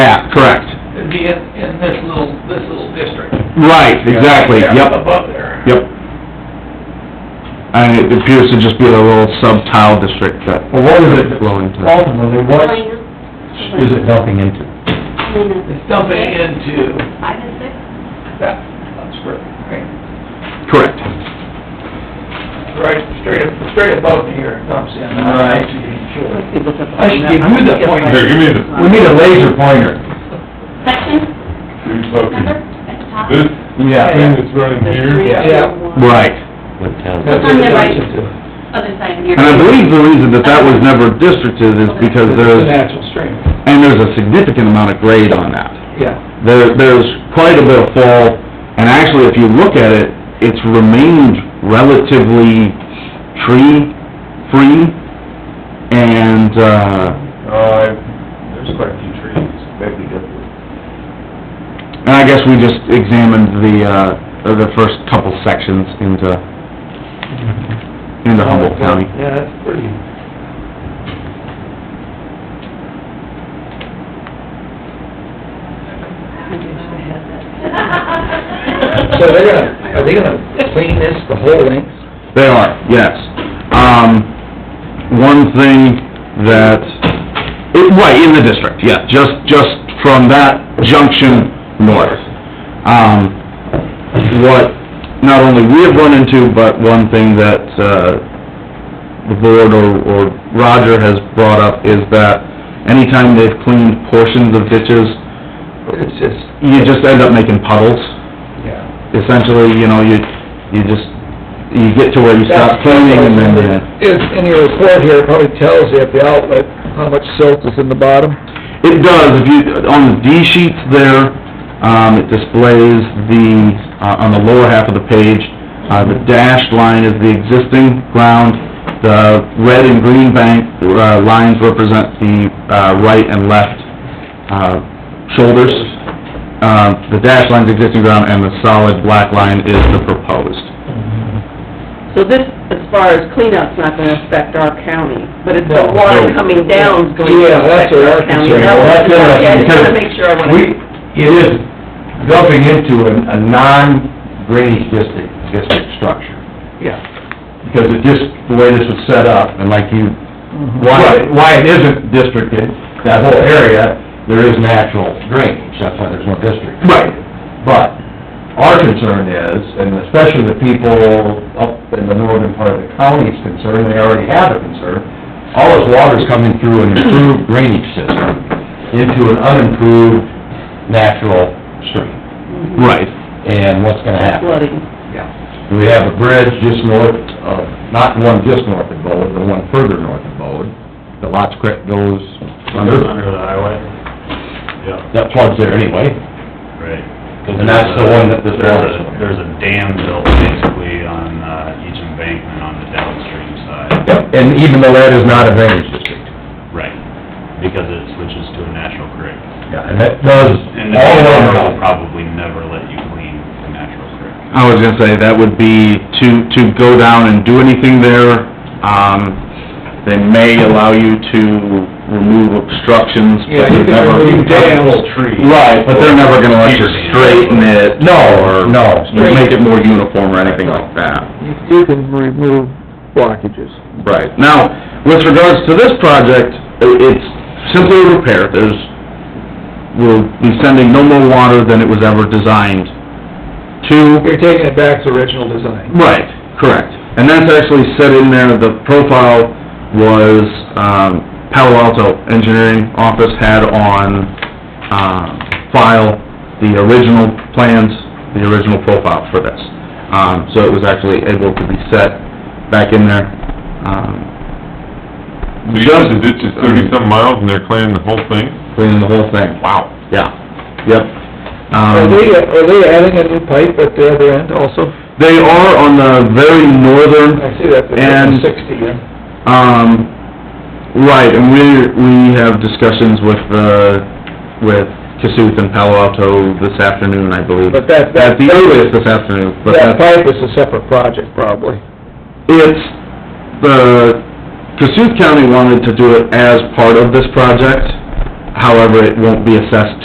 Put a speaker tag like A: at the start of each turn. A: Correct.
B: It'd be in, in this little, this little district.
A: Right, exactly,
B: Yeah,
A: yep,
B: Above there.
A: yep. And it appears to just be a little sub-tile district that...
C: Well, what is it
A: Flowing to-
C: ultimately, what is it dumping into?
B: It's dumping into
D: Five and six?
B: that, that's right,
A: Correct.
B: right, straight, up- straight above here, it dumps in.
C: Right.
B: I should give you the point.
E: Here, give me the,
C: We need a laser pointer.
D: Section
E: here's
D: number
E: fucking,
D: at the top?
E: this
C: Yeah.
E: thing that's running here,
A: Right.
C: That's
D: On
C: what
D: the
C: it
D: right.
C: dumps into.
D: Other side of your...
A: And I believe the reason that that was never districted is because
B: It's a
A: there's,
B: natural stream,
A: and there's a significant amount of grade on that.
B: yeah.
A: There, there's quite a bit of fall, and actually, if you look at it, it's remained relatively tree-free, and, uh,
E: uh, there's quite a few trees, maybe different.
A: and I guess we just examined the, uh, or the first couple sections into, into Humboldt
C: Um,
A: County.
B: Yeah, that's pretty.
C: So they're gonna, are they gonna clean this the whole length?
A: They are, yes. Um, one thing that, it- right, in the district, yeah, just, just from that junction north. Um, what not only we have run into, but one thing that, uh, the board or, or Roger has brought up is that anytime they've cleaned portions of ditches,
C: It's just,
A: you just end up making puddles.
C: yeah.
A: Essentially, you know, you, you just, you get to where you stop cleaning and then, uh,
C: It's in your report here, it probably tells you at the outlet how much silt is in the bottom.
A: It does, if you, on the D sheets there, um, it displays the, uh, on the lower half of the page, uh, the dashed line is the existing ground, the red and green bank, uh, lines represent the, uh, right and left, uh, shoulders. Uh, the dashed line's existing ground, and the solid black line is the proposed.
F: So this, as far as cleanup's not gonna affect our county, but it's the
C: No.
F: water coming down's going to
C: Yeah, that's
F: affect
C: what
F: our
C: our
F: county.
C: concern, well, that's what
F: Yeah, I
C: our
F: just wanna
C: concern.
F: make sure I wanna...
C: We, it is dumping into a, a non-drainage district, district structure.
B: Yeah.
C: Because it just, the way this was set up, and like you, Mhm. why, why it isn't districted, that whole area, there is natural drainage, that's why there's no district.
A: Right.
C: But our concern is, and especially the people up in the northern part of the county's concern, they already have a concern, all this water's coming through an improved drainage system into an unimproved natural stream.
A: Right.
C: And what's gonna happen?
F: Flooding.
C: We have a bridge just north of, not one just north of Bode, but one further north of Bode. The Lots Creek goes under,
E: the highway? Yeah,
C: that plugs there anyway.
E: right.
C: And that's the one that this water's
G: There's a- There's a dam built basically on, uh, each embankment on the downstream side.
C: Yep. And even though that is not a drainage district.
G: Right, because it switches to a natural creek.
C: Yeah, and that does
G: And the
C: all
G: dam will
C: around.
G: probably never let you clean a natural creek.
A: I was gonna say, that would be to, to go down and do anything there. Um, they may allow you to remove obstructions, but they're never... Right, but they're never gonna let you straighten it.
C: No,
A: or
C: no.
A: Make it more uniform or anything like that.
C: You can remove blockages.
A: Right. Now, with regards to this project, i- it's simply a repair. There's, we'll be sending no more water than it was ever designed to.
B: You're taking it back to original design.
A: Right, correct. And that's actually set in there, the profile was, um, Palo Alto Engineering Office had on, um, file the original plans, the original profile for this. Um, so it was actually able to be set back in there. Um,
E: So you said the ditch is thirty-some miles and they're cleaning the whole thing?
A: Cleaning the whole thing.
E: Wow.
A: Yeah, yep.
C: Are
A: Um,
C: they, are they adding a new pipe at the other end also?
A: They are on the very northern
C: I see that,
A: And-
C: it's sixty, yeah.
A: Um, right, and we, we have discussions with, uh, with Cassuth and Palo Alto this afternoon, I believe.
C: But that- that-
A: At the earliest this afternoon, but
C: That
A: that,
C: pipe is a separate project probably.
A: it's, the, Cassuth County wanted to do it as part of this project. However, it won't be assessed